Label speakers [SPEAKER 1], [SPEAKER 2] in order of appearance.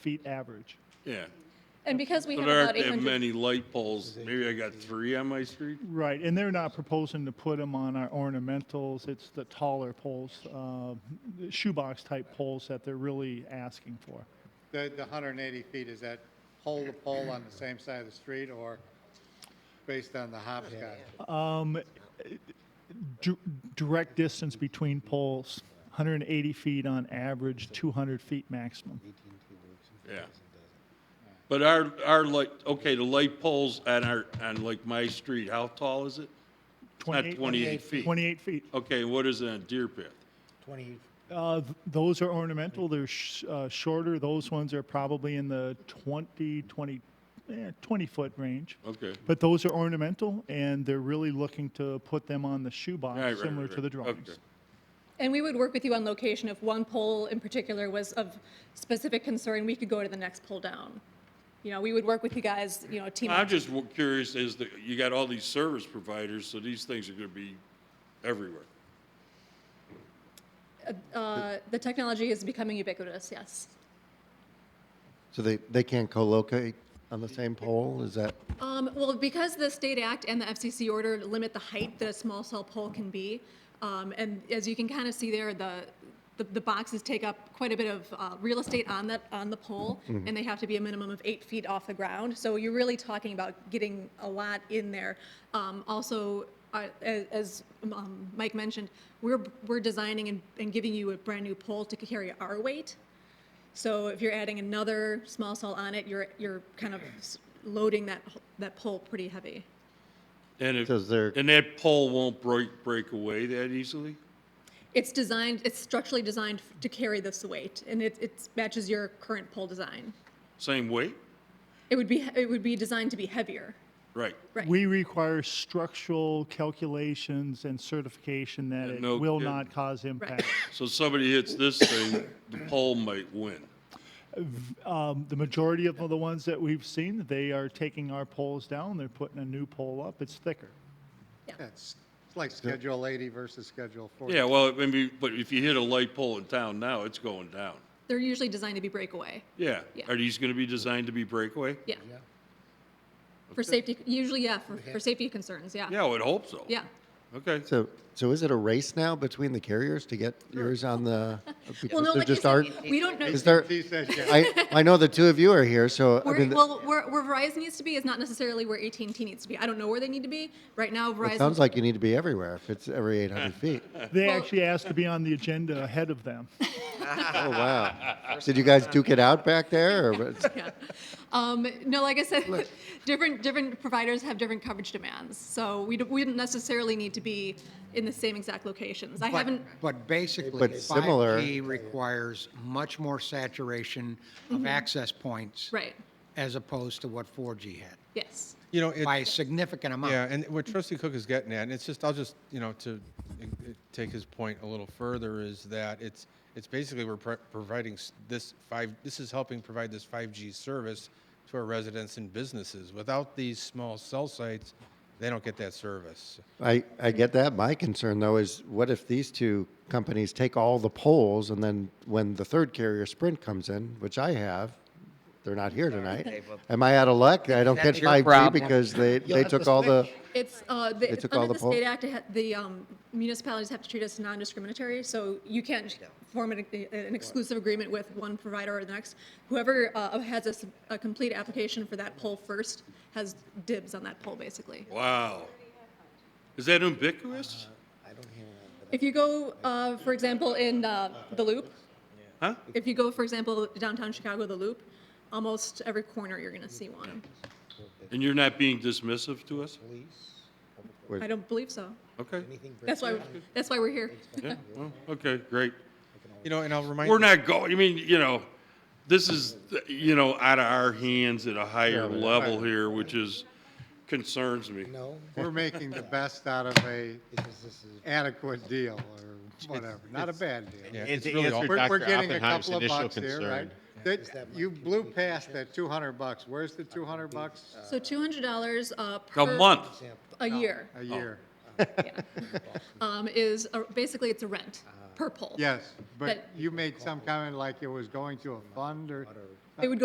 [SPEAKER 1] feet average.
[SPEAKER 2] Yeah.
[SPEAKER 3] And because we have
[SPEAKER 2] But there
[SPEAKER 3] about
[SPEAKER 2] aren't that
[SPEAKER 3] 800,
[SPEAKER 2] many light poles. Maybe I got three on my street.
[SPEAKER 1] Right, and they're not proposing to put them on our ornamentals. It's the taller poles, uh, shoebox type poles that they're really asking for.
[SPEAKER 4] The, the hundred and eighty feet, is that pole to pole on the same side of the street or based on the hopscotch?
[SPEAKER 1] Dir- direct distance between poles, 180 feet on average, 200 feet maximum.
[SPEAKER 2] Yeah. But our, our light, okay, the light poles on our, on like my street, how tall is it? It's Not 28 feet.
[SPEAKER 1] 28 feet.
[SPEAKER 2] Okay, what is it on Deer Path?
[SPEAKER 5] Twenty,
[SPEAKER 1] Uh, th- those are ornamental. They're sh- uh, shorter. Those ones are probably in the 20, 20, eh, 20 foot range.
[SPEAKER 2] Okay.
[SPEAKER 1] But those are ornamental, and they're really looking to put them on the shoebox,
[SPEAKER 2] All right, right,
[SPEAKER 1] similar
[SPEAKER 2] right,
[SPEAKER 1] to the
[SPEAKER 2] right.
[SPEAKER 1] drawings.
[SPEAKER 2] Okay.
[SPEAKER 3] and we would work with you on location. If one pole in particular was of specific concern, we could go to the next pole down. You know, we would work with you guys, you know, team
[SPEAKER 2] I'm
[SPEAKER 3] up.
[SPEAKER 2] just w- curious, is that, you got all these service providers, so these things are gonna be everywhere.
[SPEAKER 3] Uh, The technology is becoming ubiquitous, yes.
[SPEAKER 6] So they, they can't co-locate on the same pole? Is that,
[SPEAKER 3] Um, Well, because the state act and the FCC order limit the height that a small cell pole can be, um, and as you can kind of see there, the, the- the boxes take up quite a bit of uh, real estate on that, on the pole, and they have to be a minimum of eight feet off the ground. So you're really talking about getting a lot in there. Um, Also, uh, a- as um, Mike mentioned, we're, we're designing and- and giving you a brand-new pole to carry our weight. So if you're adding another small cell on it, you're, you're kind of s- loading that, h- that pole pretty heavy.
[SPEAKER 2] And if,
[SPEAKER 6] Does there-
[SPEAKER 2] and that pole won't break, break away that easily?
[SPEAKER 3] It's designed, it's structurally designed to carry this weight, and it, it matches your current pole design.
[SPEAKER 2] Same weight?
[SPEAKER 3] It would be, it would be designed to be heavier.
[SPEAKER 2] Right.
[SPEAKER 3] Right.
[SPEAKER 1] We require structural calculations and certification that
[SPEAKER 2] Yeah,
[SPEAKER 1] it
[SPEAKER 2] no
[SPEAKER 1] will
[SPEAKER 2] kidding.
[SPEAKER 1] not cause impact.
[SPEAKER 2] So somebody hits this thing, the pole might win.
[SPEAKER 1] Um, the majority of the ones that we've seen, they are taking our poles down, they're putting a new pole up, it's thicker.
[SPEAKER 4] It's it's like Schedule eighty versus Schedule forty.
[SPEAKER 2] Yeah, well, maybe, but if you hit a light pole in town now, it's going down.
[SPEAKER 3] They're usually designed to be breakaway.
[SPEAKER 2] Yeah.
[SPEAKER 3] Yeah.
[SPEAKER 2] Are these gonna be designed to be breakaway?
[SPEAKER 3] Yeah. For safety, usually, yeah, for, for safety concerns, yeah.
[SPEAKER 2] Yeah, I would hope so.
[SPEAKER 3] Yeah.
[SPEAKER 2] Okay.
[SPEAKER 6] so, so is it a race now between the carriers to get yours on the,
[SPEAKER 3] Well,
[SPEAKER 6] because
[SPEAKER 3] no,
[SPEAKER 6] there
[SPEAKER 3] like I
[SPEAKER 6] just
[SPEAKER 3] said,
[SPEAKER 6] aren't?
[SPEAKER 3] we don't know.
[SPEAKER 6] Is there,
[SPEAKER 4] He says yes.
[SPEAKER 6] I, I know the two of you are here, so, I
[SPEAKER 3] Where,
[SPEAKER 6] mean,
[SPEAKER 3] well, where, where Verizon needs to be is not necessarily where AT&T needs to be. I don't know where they need to be. Right now, Verizon.
[SPEAKER 6] it sounds like you need to be everywhere if it's every 800 feet.
[SPEAKER 1] They
[SPEAKER 3] Well-
[SPEAKER 1] actually asked to be on the agenda ahead of them.
[SPEAKER 6] Oh, wow. Did you guys duke it out back there, or what-
[SPEAKER 3] Yeah. Um, no, like I said, different, different providers have different coverage demands. So we, d- we didn't necessarily need to be in the same exact locations. I
[SPEAKER 7] But-
[SPEAKER 3] haven't,
[SPEAKER 7] But basically,
[SPEAKER 6] But similar-
[SPEAKER 7] 5G requires much more saturation of access points
[SPEAKER 3] right,
[SPEAKER 7] as opposed to what 4G had,
[SPEAKER 3] yes.
[SPEAKER 8] You know, it,
[SPEAKER 7] by a significant amount.
[SPEAKER 8] yeah, and what Trustee Cook is getting at, and it's just, I'll just, you know, to uh, uh, take his point a little further, is that it's, it's basically we're pro- providing s- this five, this is helping provide this 5G service to our residents and businesses. Without these small cell sites, they don't get that service.
[SPEAKER 6] I, I get that. My concern though is what if these two companies take all the polls and then when the third carrier Sprint comes in, which I have, they're not here tonight. Am I out of luck? I don't
[SPEAKER 5] That's
[SPEAKER 6] get
[SPEAKER 5] your
[SPEAKER 6] 5G
[SPEAKER 5] problem.
[SPEAKER 6] because they, they
[SPEAKER 5] have to
[SPEAKER 6] took all the,
[SPEAKER 3] It's, uh, the,
[SPEAKER 6] took all
[SPEAKER 3] under
[SPEAKER 6] the
[SPEAKER 3] the
[SPEAKER 6] poll-
[SPEAKER 3] state act, it ha- the, um, municipalities have to treat us non-discriminatory. So you can't j- form an, an exclusive agreement with one provider or the next. Whoever, uh, has a, s- a complete application for that poll first has dibs on that poll, basically.
[SPEAKER 2] Wow. Is that ubiquitous?
[SPEAKER 3] If you go, uh, for example, in, uh, the loop,
[SPEAKER 2] Huh?
[SPEAKER 3] If you go, for example, downtown Chicago, the Loop, almost every corner you're going to see one.
[SPEAKER 2] And you're not being dismissive to us?
[SPEAKER 3] I don't believe so.
[SPEAKER 2] Okay.
[SPEAKER 3] That's why, that's why we're here.
[SPEAKER 2] Yeah, well, okay, great.
[SPEAKER 8] You know, and I'll remind.
[SPEAKER 2] We're
[SPEAKER 8] you-
[SPEAKER 2] not going, I mean, you know, this is, you know, out of our hands at a higher level here, which is, concerns me.
[SPEAKER 5] No,
[SPEAKER 4] We're making the best out of a
[SPEAKER 5] because this is.
[SPEAKER 4] adequate deal or whatever, not a bad
[SPEAKER 8] Yeah,
[SPEAKER 4] deal.
[SPEAKER 8] it's
[SPEAKER 9] to
[SPEAKER 8] really
[SPEAKER 9] answer
[SPEAKER 8] awful.
[SPEAKER 4] We're, we're
[SPEAKER 9] Dr.
[SPEAKER 4] getting a
[SPEAKER 9] Oppenheim's
[SPEAKER 4] couple of
[SPEAKER 9] initial
[SPEAKER 4] bucks here, right?
[SPEAKER 9] concern.
[SPEAKER 4] That- you blew past that two hundred bucks. Where's the two hundred bucks
[SPEAKER 3] So $200 uh, per.
[SPEAKER 2] A month,
[SPEAKER 3] A year
[SPEAKER 4] a year?
[SPEAKER 3] um, is, a- basically, it's a rent per pole.
[SPEAKER 4] Yes, but
[SPEAKER 3] But-
[SPEAKER 4] you made some comment like it was going to a fund or
[SPEAKER 3] It would go